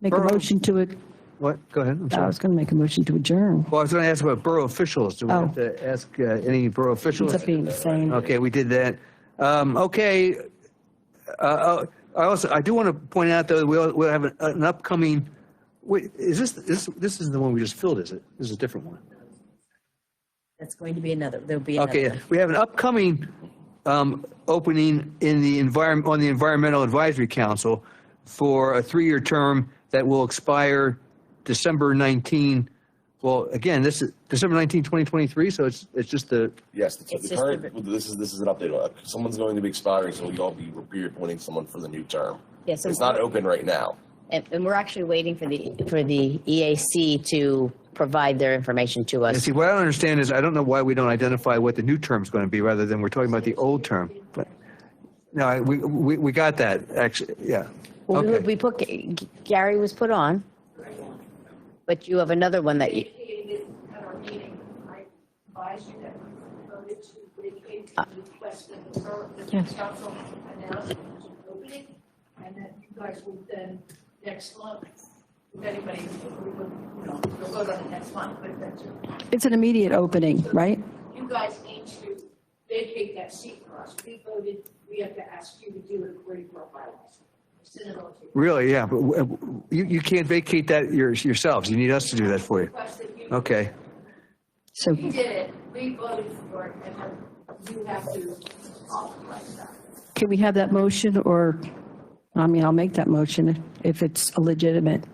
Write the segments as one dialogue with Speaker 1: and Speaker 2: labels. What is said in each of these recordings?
Speaker 1: Make a
Speaker 2: Borough-
Speaker 1: motion to it.
Speaker 2: What? Go ahead. I'm
Speaker 1: I
Speaker 2: sorry.
Speaker 1: was going to make a motion to adjourn.
Speaker 2: Well, I was going to ask about borough officials. Do we
Speaker 1: Oh.
Speaker 2: have to ask uh, any borough officials?
Speaker 1: It's up being the same.
Speaker 2: Okay, we did that. Um, okay. Uh, uh, I also, I do want to point out though, we'll, we'll have an- an upcoming, wait, is this, this, this is the one we just filled, is it? This is a different one.
Speaker 3: That's going to be another, there'll be another.
Speaker 2: Okay,
Speaker 3: one.
Speaker 2: we have an upcoming um, opening in the environment, on the Environmental Advisory Council for a three-year term that will expire December 19, well, again, this is December 19, 2023, so it's, it's just the,
Speaker 4: Yes, the,
Speaker 3: It's
Speaker 4: the
Speaker 3: just
Speaker 4: current,
Speaker 3: the-
Speaker 4: this is, this is an update. Uh, Someone's going to be expiring, so you'll all be reappointing someone for the new term.
Speaker 3: Yeah, so-
Speaker 4: It's not open right now.
Speaker 3: And, and we're actually waiting for the, for the EAC to provide their information to
Speaker 2: and
Speaker 3: us.
Speaker 2: see, what I don't understand is, I don't know why we don't identify what the new term's going to be, rather than we're talking about the old term. But, no, I- we, we, we got that, actually, yeah.
Speaker 3: Well, we,
Speaker 2: Okay.
Speaker 3: we put, Gary was put on, but you have another one that you,
Speaker 5: indicated at our meeting, I advised you that we voted to vacate the request of the borough, that the council announced it was an opening, and that you guys would then, next month, if anybody, we would, you know, you'll vote on it next month, but that's,
Speaker 1: It's an immediate opening, right?
Speaker 5: you guys need to vacate that seat for us. We voted, we have to ask you to do it according to our bylaws. It's in the motion.
Speaker 2: Really, yeah, but w- w- you, you can't vacate that your- yourselves, you need us to do that for you.
Speaker 5: Request that you.
Speaker 2: Okay.
Speaker 1: So,
Speaker 5: We did it, we voted for it, and then you have to authorize that.
Speaker 1: can we have that motion or, I mean, I'll make that motion if it's legitimate.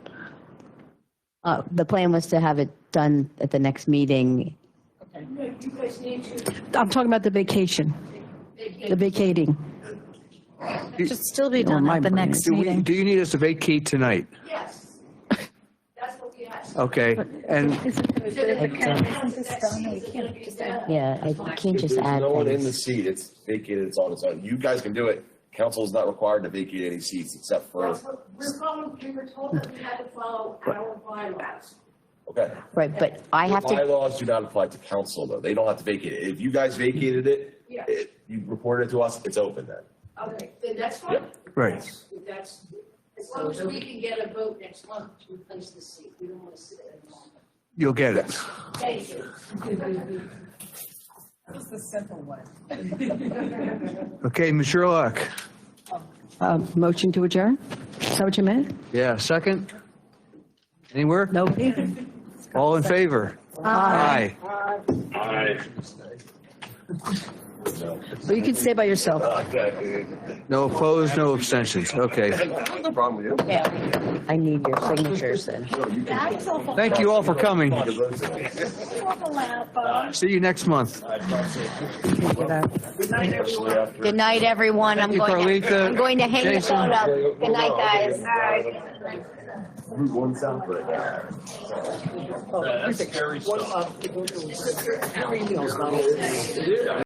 Speaker 3: uh, the plan was to have it done at the next meeting.
Speaker 5: No, you guys need to
Speaker 1: I'm talking about the vacation, the
Speaker 5: vacate.
Speaker 1: vacating.
Speaker 6: Should still be
Speaker 1: You're on
Speaker 6: done
Speaker 1: my
Speaker 6: at the
Speaker 1: brain.
Speaker 6: next
Speaker 2: Do we,
Speaker 6: meeting.
Speaker 2: do you need us to vacate tonight?
Speaker 5: Yes. That's what we asked.
Speaker 2: Okay, and,
Speaker 3: Yeah, I can't just
Speaker 4: There's
Speaker 3: add
Speaker 4: no one in the
Speaker 3: things.
Speaker 4: seat. It's vacated. It's on its own. You guys can do it. Council is not required to vacate any seats except for,
Speaker 5: We're following, we were told that we had to follow our bylaws.
Speaker 4: okay.
Speaker 3: Right, but I have to,
Speaker 4: Bylaws do not apply to council though. They don't have to vacate it. If you guys vacated it,
Speaker 5: Yeah.
Speaker 4: it- you reported it to us, it's open then.
Speaker 5: Okay, the next one?
Speaker 2: Right.
Speaker 5: Yes, That's, as long as we can get a vote next month to replace the seat, we don't want to sit there anymore.
Speaker 2: you'll get it.
Speaker 5: Thank you.
Speaker 2: Okay, Ms. Sherlock,
Speaker 1: Uh, Motion to adjourn? Is that what you meant?
Speaker 2: yeah, second? Anywhere?
Speaker 1: Nobody?
Speaker 2: All in favor? Aye.
Speaker 3: well, you can stay by yourself.
Speaker 2: No opposed, no abstentions, okay.
Speaker 4: No problem with you.
Speaker 3: Yeah, I need your signatures then.
Speaker 2: Thank you all for coming. See you next month.
Speaker 3: Good night, everyone. I'm
Speaker 2: Thank you,
Speaker 3: going to,
Speaker 2: Carlita.
Speaker 3: I'm going to hang this
Speaker 2: Jason.
Speaker 3: one up. Good night, guys.
Speaker 4: Route one south right now.